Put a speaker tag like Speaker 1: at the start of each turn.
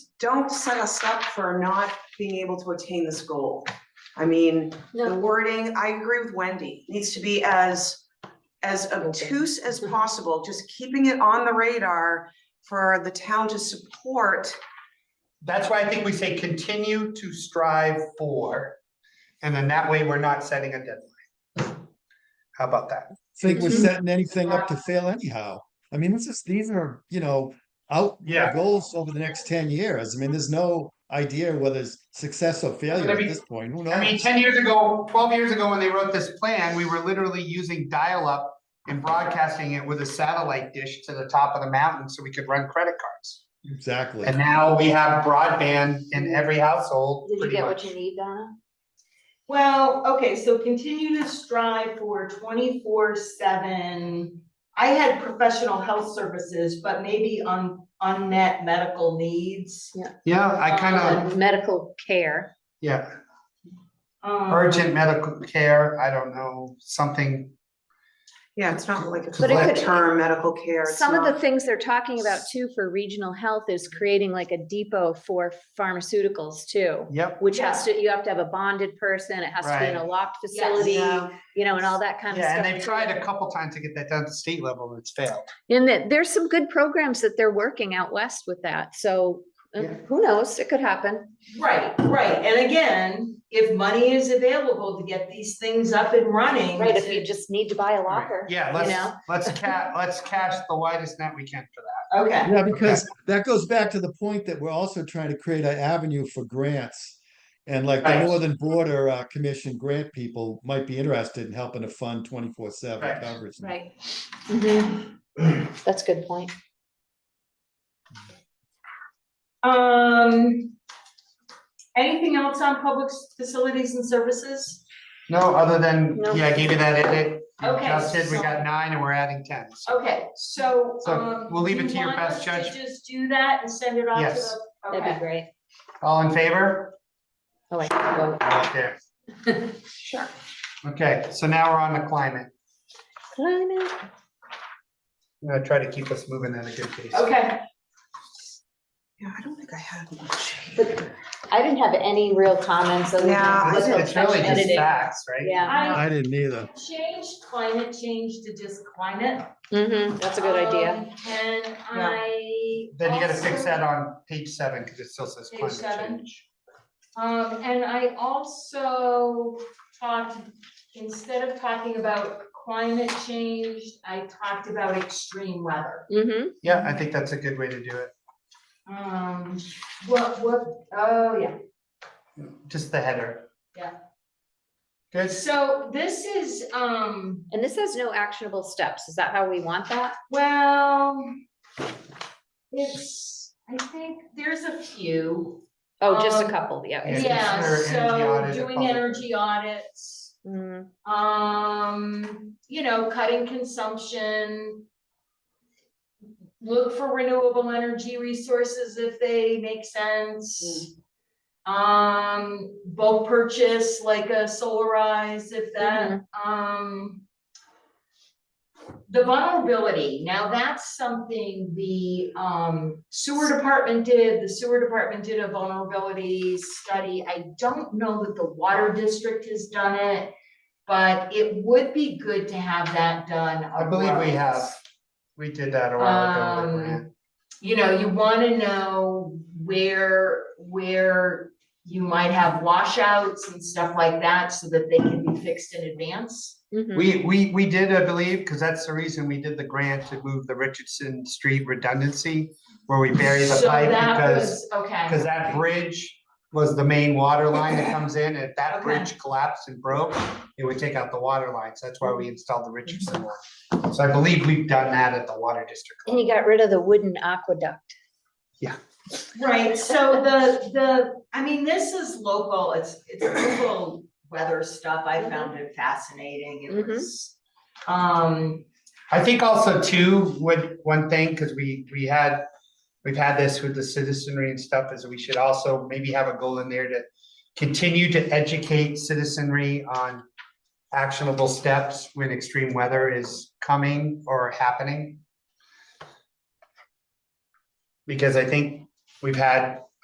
Speaker 1: don't set us up for not being able to attain this goal. I mean, the
Speaker 2: No,
Speaker 1: wording, I agree with Wendy, needs to be as, as obtuse as
Speaker 2: Mm-hmm.
Speaker 1: possible, just keeping it on the radar for the town to support.
Speaker 3: That's why I think we say continue to strive for. And then that way we're not setting a deadline. How about that?
Speaker 4: think we're
Speaker 2: Mhm.
Speaker 4: setting anything up to fail anyhow. I mean, this is, these are, you know, out
Speaker 3: Yeah.
Speaker 4: goals over the next ten years. I mean, there's no idea whether it's success or failure at
Speaker 3: mean-
Speaker 4: this point. Who
Speaker 3: I mean,
Speaker 4: knows?
Speaker 3: ten years ago, twelve years ago, when they wrote this plan, we were literally using dial-up and broadcasting it with a satellite dish to the top of the mountain so we could run credit cards.
Speaker 4: Exactly.
Speaker 3: And now we have broadband in every household,
Speaker 2: did you
Speaker 3: pretty
Speaker 2: get what
Speaker 3: much.
Speaker 2: you need, Donna?
Speaker 5: Well, okay, so continue to strive for twenty-four seven. I had professional health services, but maybe on unmet medical needs.
Speaker 3: Yeah, I kind of,
Speaker 2: Uh, Medical care,
Speaker 3: yeah,
Speaker 5: Um,
Speaker 3: urgent medical care, I don't know, something.
Speaker 1: Yeah, it's not like
Speaker 2: But it could-
Speaker 1: a term medical care. it's
Speaker 2: some of the
Speaker 1: not-
Speaker 2: things they're talking about too for regional health is creating like a depot for pharmaceuticals too.
Speaker 3: Yep,
Speaker 2: Which has to, you have to have a bonded person, it has to be in a locked
Speaker 5: Yes.
Speaker 2: facility,
Speaker 1: Yeah.
Speaker 2: you know, and all that kind of
Speaker 3: yeah,
Speaker 2: stuff.
Speaker 3: and they've tried a couple times to get that down to state level and it's failed.
Speaker 2: And that, there's some good programs that they're working out west with that, so uh,
Speaker 3: Yeah.
Speaker 2: who knows, it could happen.
Speaker 5: Right, right, and again, if money is available to get these things up and running.
Speaker 2: Right, if
Speaker 5: to-
Speaker 2: you just need to buy a
Speaker 3: Right.
Speaker 2: locker.
Speaker 3: Yeah,
Speaker 2: you know?
Speaker 3: let's, let's ca- let's cast the widest net we can for that.
Speaker 5: Okay,
Speaker 4: Yeah, because that goes back to the point that we're also trying to create an avenue for grants. And like the
Speaker 3: Right.
Speaker 4: Northern Border uh, Commission grant people might be interested in helping to fund twenty-four seven
Speaker 3: Right.
Speaker 4: coverage.
Speaker 2: Right. Mhm. That's a good point.
Speaker 5: um, anything else on public s- facilities and services?
Speaker 3: No, other than,
Speaker 2: No.
Speaker 3: yeah, I gave you that edit. You
Speaker 5: Okay,
Speaker 3: just did, we
Speaker 5: so-
Speaker 3: got nine and we're adding ten. so.
Speaker 5: Okay, so,
Speaker 3: So,
Speaker 5: um.
Speaker 3: we'll leave
Speaker 5: do
Speaker 3: it
Speaker 5: you
Speaker 3: to your
Speaker 5: want
Speaker 3: best
Speaker 5: us
Speaker 3: judge-
Speaker 5: Just do that and send it off to
Speaker 3: Yes.
Speaker 5: the,
Speaker 2: That'd be
Speaker 5: okay,
Speaker 2: great.
Speaker 3: All in favor?
Speaker 2: Oh, I can vote.
Speaker 3: Okay.
Speaker 2: Sure.
Speaker 3: Okay, so now we're on the climate.
Speaker 2: Climate.
Speaker 3: I'm gonna try to keep us moving at a good pace.
Speaker 5: okay.
Speaker 1: Yeah, I don't think I had much.
Speaker 2: I didn't have any real comments. other than
Speaker 1: Yeah, I
Speaker 2: what
Speaker 3: It's
Speaker 2: the
Speaker 3: it's really just
Speaker 2: editing-
Speaker 3: facts, right?
Speaker 2: Yeah,
Speaker 4: I didn't
Speaker 3: Uh,
Speaker 4: either.
Speaker 5: Change climate change to just climate.
Speaker 2: hmm that's a good idea.
Speaker 5: Um, And I.
Speaker 3: Then you gotta
Speaker 5: also-
Speaker 3: fix that on page seven, because it still says
Speaker 5: Page
Speaker 3: climate
Speaker 5: seven.
Speaker 3: change.
Speaker 5: Um, and I also talked, instead of talking about climate change, I talked about extreme weather.
Speaker 2: hmm
Speaker 3: Yeah, I think that's a good way to do it.
Speaker 5: Um, what, what, oh, yeah.
Speaker 3: Just the header.
Speaker 5: Yeah.
Speaker 3: Good.
Speaker 5: So this is, um,
Speaker 2: And this has no actionable steps. Is that how we want that?
Speaker 5: well, it's, I think there's a few.
Speaker 2: Oh, just a
Speaker 5: Um,
Speaker 2: couple, yeah.
Speaker 3: Yeah,
Speaker 5: Yeah,
Speaker 3: consider energy
Speaker 5: so
Speaker 3: audit a
Speaker 5: doing
Speaker 3: public-
Speaker 5: energy audits,
Speaker 2: Mm,
Speaker 5: um, you know, cutting consumption. Look for renewable energy resources if they make sense. Um, bulk purchase like a solarize if that, um. The vulnerability, now that's something the um sewer department did, the sewer department did a vulnerability study. I don't know that the water district has done it, but it would be good to have that done.
Speaker 3: I believe we have.
Speaker 5: upfront.
Speaker 3: We did that a while ago. with a grant.
Speaker 5: Um, You know, you wanna know where, where you might have washouts and stuff like that so that they can be fixed in advance.
Speaker 2: mhm.
Speaker 3: We, we, we did, I believe, because that's the reason we did the grant to move the Richardson Street redundancy, where we bury the
Speaker 5: So
Speaker 3: pipe
Speaker 5: that
Speaker 3: because,
Speaker 5: was- Okay.
Speaker 3: because that bridge was the main water line that comes in. If that
Speaker 5: Okay.
Speaker 3: bridge collapsed and broke, it would take out the water lines. That's why we installed the Richardson one. So I believe we've done that at the water district.
Speaker 2: And you got rid of the wooden aqueduct.
Speaker 5: Right, so the, the, I mean, this is local, it's, it's local weather stuff, I found it fascinating, it
Speaker 2: Mhm.
Speaker 5: was. Um,
Speaker 3: I think also too, would, one thing, because we, we had, we've had this with the citizenry and stuff, is we should also maybe have a goal in there to continue to educate citizenry on actionable steps when extreme weather is coming or happening. Because I think we've had